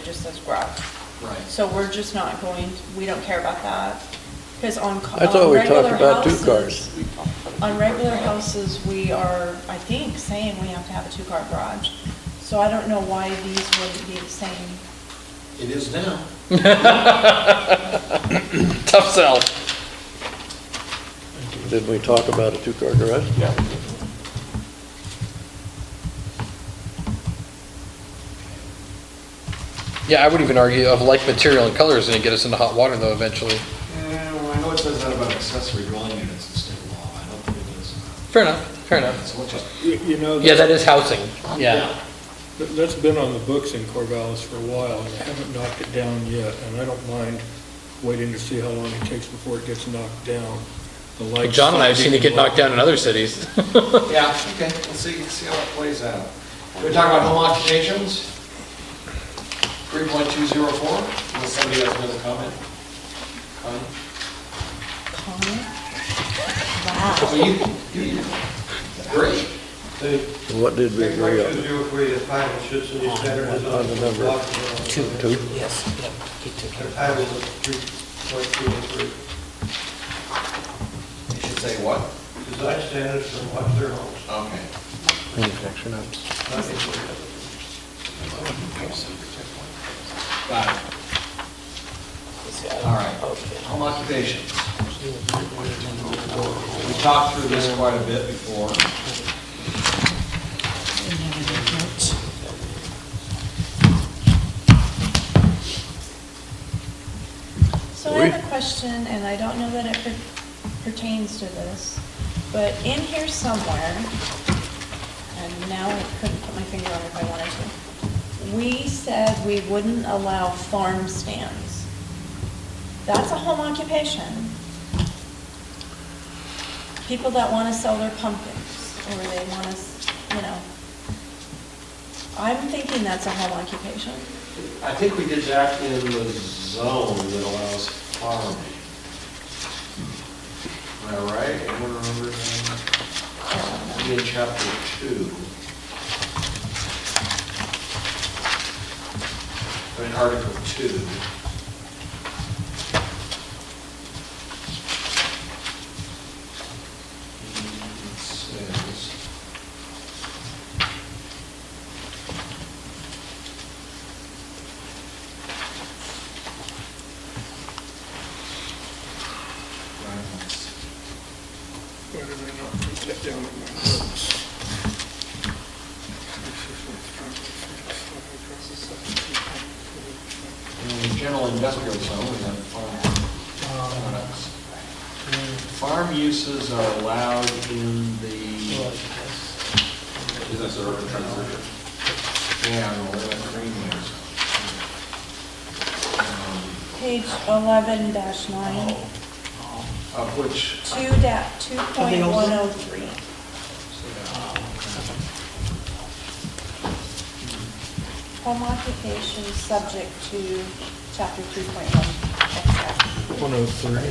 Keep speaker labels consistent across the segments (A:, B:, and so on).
A: just says garage.
B: Right.
A: So we're just not going, we don't care about that, because on. ca-
C: I thought
A: on
C: we talked
A: regular
C: about two
A: houses-
C: cars.
A: On regular houses, we are, I think, saying we have to have a two-car garage, so I don't know why these wouldn't be the same.
B: It is now.
D: Tough sell.
C: Didn't we talk about a two-car garage?
D: Yeah. Yeah, I would even argue of like material and color is gonna get us into hot water though eventually.
B: Yeah, well, I know it says that about accessory dwelling units in state law, I don't think it does.
D: Fair enough, fair enough.
B: So let's just,
E: You you know,
D: Yeah,
E: that-
D: that is housing, yeah.
E: that's been on the books in Corvallis for a while, and they haven't knocked it down yet, and I don't mind waiting to see how long it takes before it gets knocked down. The
D: Like
E: lights-
D: John and I have seen it get knocked down in other cities.
B: yeah, okay, we'll see, see how it plays out. We're talking about home occupations, 3.204, unless somebody has another comment? Comment?
A: Comment? Wow.
B: Well, you, you, you- great.
F: The
C: What did we
F: thing I
C: agree
F: could
C: on?
F: do if we define it should city
C: Oh,
F: standards
C: On
F: on
C: the
F: the
C: number.
F: block.
C: Two.
G: Yes, yep, he took care of
F: The
G: that.
F: title is three point two and three.
B: You should say what?
F: Design standards for modular homes.
B: Okay.
C: Manufactured
B: Got it. All right. Home occupations. We talked through this quite a bit before.
G: Didn't have any notes.
A: So I have a question, and I don't know that it per- pertains to this, but in here somewhere, and now I couldn't put my finger on it if I wanted to, we said we wouldn't allow farm stands. That's a home occupation. People that want to sell their pumpkins, or they want to, you know. I'm thinking that's a home occupation.
B: I think we did that in the zone that allows farming. Am I right? Anyone remember that? In chapter two. I mean, article two. It says.
H: uh,
E: Why did I not put that down in my notes?
B: In the general industrial zone, we have farm products. Farm uses are allowed in the,
G: Business urban transition.
B: yeah, in the limit greenway zone. Um,
A: Page 11 dash 9.
B: Of which,
A: Two da, two point one oh three. Home occupation subject to chapter two point one.
E: 103.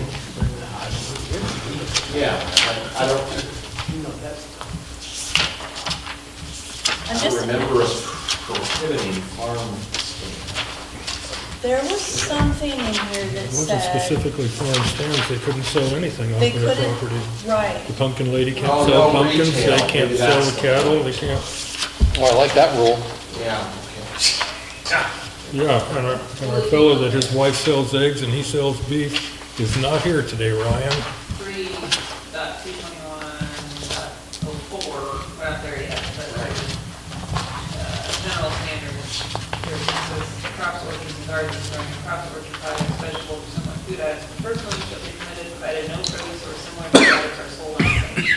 B: yeah, I I don't,
A: I'm
B: I don't
A: just,
B: remember us prohibiting farm stands.
A: there was something in here that
I: It wasn't
A: said
I: specifically farm stands, they couldn't sell anything off
A: they
I: their
A: couldn't,
I: property.
A: right.
I: The pumpkin lady
B: Oh,
I: can't sell
B: no
I: pumpkins,
B: retail.
I: they can't
B: Maybe
I: sell
B: that's-
I: cattle, they can't,
D: Well, I like that rule.
B: Yeah, okay.
I: yeah, and our, and our fellow that his wife sells eggs and he sells beef is not here today, Ryan.
H: three dot two twenty-one dot oh four, we're not there yet, but there's, uh, general standards. There's, there's crops, orchards, and gardens, growing crops, orchard products, vegetables, or similar food items, personally shall be permitted, provided no produce or similar food items are sold on site.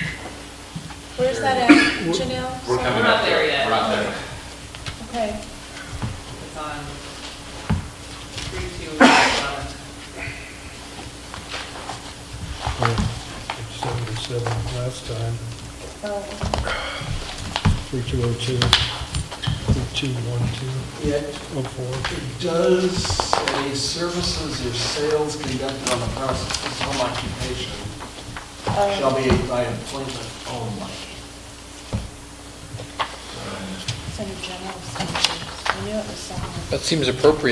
A: Where's that at, Janelle?
H: We're
A: Sorry.
H: not there yet.
B: We're not there.
A: Okay,
H: It's on three two eleven.
I: Seventy-seven last time,
A: oh,
I: three two oh two, three two one two,
B: Yeah,
I: oh four.
B: Does a services or sales conducted on the premises of home occupation
A: oh,
B: shall be by employment only?
A: it's in general standards. I knew it was somewhere.
D: That seems appropriate